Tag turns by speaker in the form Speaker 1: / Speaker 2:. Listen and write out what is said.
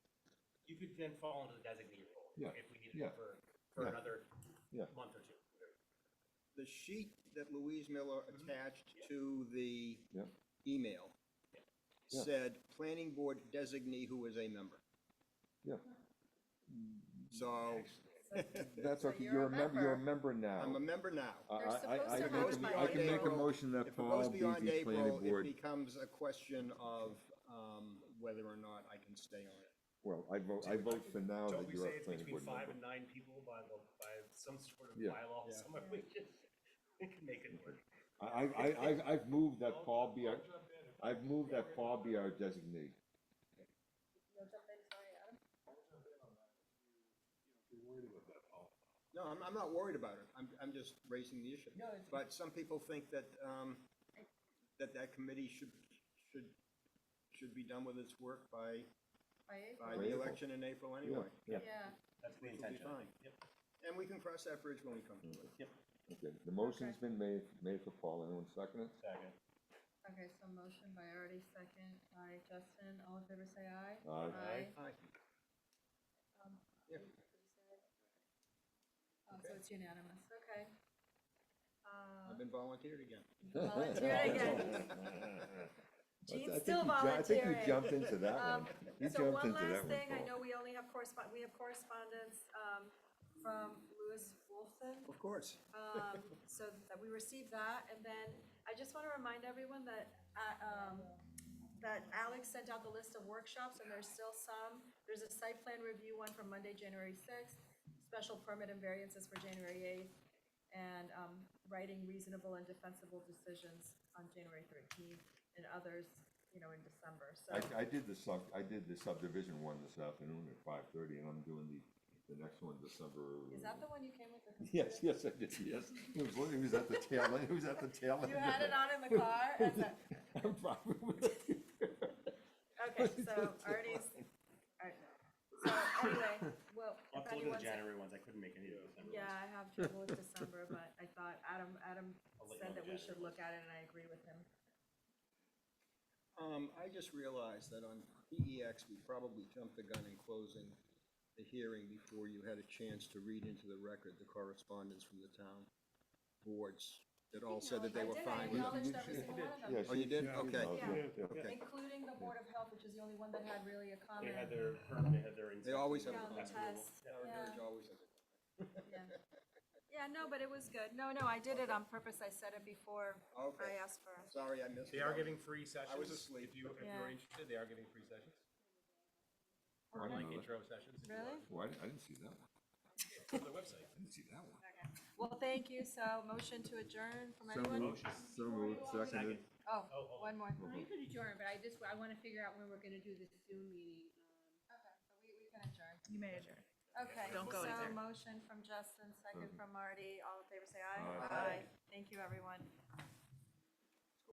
Speaker 1: could then fall into the designated role.
Speaker 2: Yeah,
Speaker 1: If we needed
Speaker 2: yeah,
Speaker 1: it for, for
Speaker 2: yeah,
Speaker 1: another
Speaker 2: yeah.
Speaker 1: month or two.
Speaker 3: The sheet that Louise Miller attached to the
Speaker 2: Yep.
Speaker 3: email
Speaker 2: Yeah.
Speaker 3: said, planning board designee who is a member.
Speaker 2: Yeah.
Speaker 3: So
Speaker 2: That's
Speaker 4: So
Speaker 2: okay,
Speaker 4: you're
Speaker 2: you're
Speaker 4: a
Speaker 2: a member, you're a
Speaker 4: member.
Speaker 2: member now.
Speaker 3: I'm a member now.
Speaker 2: I-
Speaker 4: They're
Speaker 2: I- I-
Speaker 4: supposed
Speaker 2: I
Speaker 4: to
Speaker 2: can
Speaker 4: have
Speaker 2: make-
Speaker 4: by
Speaker 2: I can make a
Speaker 3: April.
Speaker 2: motion that
Speaker 3: If it goes
Speaker 2: Paul be
Speaker 3: beyond
Speaker 2: the
Speaker 3: April,
Speaker 2: planning
Speaker 3: it
Speaker 2: board.
Speaker 3: becomes a question of, um, whether or not I can stay on it.
Speaker 2: Well, I vote, I vote for now
Speaker 1: Don't
Speaker 2: that
Speaker 1: we
Speaker 2: you're
Speaker 1: say
Speaker 2: a
Speaker 1: it's
Speaker 2: planning
Speaker 1: between
Speaker 2: board
Speaker 1: five
Speaker 2: member.
Speaker 1: and nine people by the, by some sort of
Speaker 2: Yeah.
Speaker 1: bylaw
Speaker 3: Yeah.
Speaker 1: somewhere? We can, we can make it work.
Speaker 2: I, I, I, I've- I've moved that Paul be our, I've moved that Paul be our designee.
Speaker 4: You'll jump in, sorry, Adam.
Speaker 3: No, I'm, I'm not worried about it. I'm, I'm just raising the issue. But some people think that, um, that that committee should, should, should be done with its work by,
Speaker 4: By April.
Speaker 3: by
Speaker 2: By
Speaker 3: the
Speaker 2: April.
Speaker 3: election in April anyway.
Speaker 2: Yeah,
Speaker 4: Yeah,
Speaker 1: That's the
Speaker 3: Which will be
Speaker 1: intention.
Speaker 3: fine.
Speaker 1: Yep,
Speaker 3: And we can cross that bridge when we come to it.
Speaker 2: okay, the motion's been made, made for Paul, anyone second it?
Speaker 1: second.
Speaker 4: okay, so motion by Artie, second by Justin, all in favor say aye.
Speaker 2: Aye.
Speaker 3: Aye.
Speaker 4: Um,
Speaker 3: Yeah.
Speaker 4: uh, So it's unanimous, okay. Uh,
Speaker 3: I've been volunteered again.
Speaker 4: Volunteer again.
Speaker 2: I th- I
Speaker 4: Gene's
Speaker 2: think
Speaker 4: still
Speaker 2: you ju- I think you
Speaker 4: volunteering.
Speaker 2: jumped into that
Speaker 4: Um,
Speaker 2: one. You
Speaker 4: So
Speaker 2: jumped
Speaker 4: one
Speaker 2: into that
Speaker 4: last
Speaker 2: one,
Speaker 4: thing, I
Speaker 2: Paul.
Speaker 4: know we only have correspond, we have correspondence um, from Lewis Wolfson.
Speaker 3: Of course.
Speaker 4: Um, so that we received that, and then I just wanna remind everyone that, uh, um, that Alex sent out the list of workshops, and there's still some. There's a site plan review one for Monday, January sixth, special permit and variances for January eighth, and, um, writing reasonable and defensible decisions on January thirteenth, and others, you know, in December, so.
Speaker 2: I, I did the sub, I did the subdivision one this afternoon at five thirty, and I'm doing the, the next one December.
Speaker 4: Is that the one you came with? the
Speaker 2: Yes,
Speaker 4: computer?
Speaker 2: yes, I did, yes. He was, he was at the tail end, he was at the tail end.
Speaker 4: You had it on in the car, as a-
Speaker 2: I'm probably-
Speaker 4: Okay, so Artie's, alright, so anyway, well,
Speaker 1: I'll have to look at
Speaker 4: if anyone's,
Speaker 1: the January ones. I couldn't make any of the December
Speaker 4: yeah,
Speaker 1: ones.
Speaker 4: I have trouble with December, but I thought Adam, Adam
Speaker 1: I'll let you
Speaker 4: said
Speaker 1: know
Speaker 4: that
Speaker 1: the
Speaker 4: we
Speaker 1: January
Speaker 4: should look at it and I agree with him.
Speaker 3: Um, I just realized that on PEX, we probably jumped the gun in closing the hearing before you had a chance to read into the record the correspondence from the town boards that all said that they were
Speaker 4: I
Speaker 3: fine with
Speaker 4: did, I
Speaker 3: it.
Speaker 4: acknowledged every single one of
Speaker 2: Yeah,
Speaker 4: them,
Speaker 3: Oh, you
Speaker 2: she-
Speaker 3: did?
Speaker 2: she
Speaker 3: Okay.
Speaker 2: knows,
Speaker 4: Yeah.
Speaker 2: yeah, yeah.
Speaker 1: Yeah.
Speaker 4: including the Board of Health, which is the only one that had really a
Speaker 1: They had
Speaker 4: comment.
Speaker 1: their, perm- they had their.
Speaker 3: They always
Speaker 1: incentive.
Speaker 3: have a
Speaker 4: Yeah,
Speaker 1: That's doable.
Speaker 4: the test.
Speaker 1: Yeah.
Speaker 3: Our
Speaker 4: Yeah.
Speaker 3: village always has it.
Speaker 4: Yeah, Yeah, no, but it was good. No, no, I did it on purpose. I said it before
Speaker 3: Okay.
Speaker 4: I uh, asked for it.
Speaker 3: Sorry, I missed.
Speaker 5: They
Speaker 3: it.
Speaker 5: are giving free sessions.
Speaker 3: asleep.
Speaker 5: If you, if
Speaker 4: Yeah.
Speaker 5: you're interested, they are giving free sessions,
Speaker 2: I didn't
Speaker 5: like
Speaker 2: know that.
Speaker 5: intro sessions. if you
Speaker 4: Really?
Speaker 5: want.
Speaker 2: Well, I didn't- I didn't see that one,
Speaker 5: It's on their website.
Speaker 2: I didn't see that one.
Speaker 4: Okay. Well, thank you, so motion to adjourn from
Speaker 2: So
Speaker 4: anyone?
Speaker 2: moved, so moved, seconded.
Speaker 4: Oh,
Speaker 1: Oh, hold on.
Speaker 4: one more.
Speaker 6: I could adjourn, but I just, I wanna figure out when we're gonna do this Zoom meeting. um,
Speaker 4: Okay, so we, we can adjourn.
Speaker 7: You may adjourn.
Speaker 4: Okay,
Speaker 7: Don't go
Speaker 4: so
Speaker 7: anywhere.
Speaker 4: motion from Justin, second
Speaker 2: Mhm.
Speaker 4: from Marty, all in favor say aye.
Speaker 2: Aye.
Speaker 4: Thank you, everyone.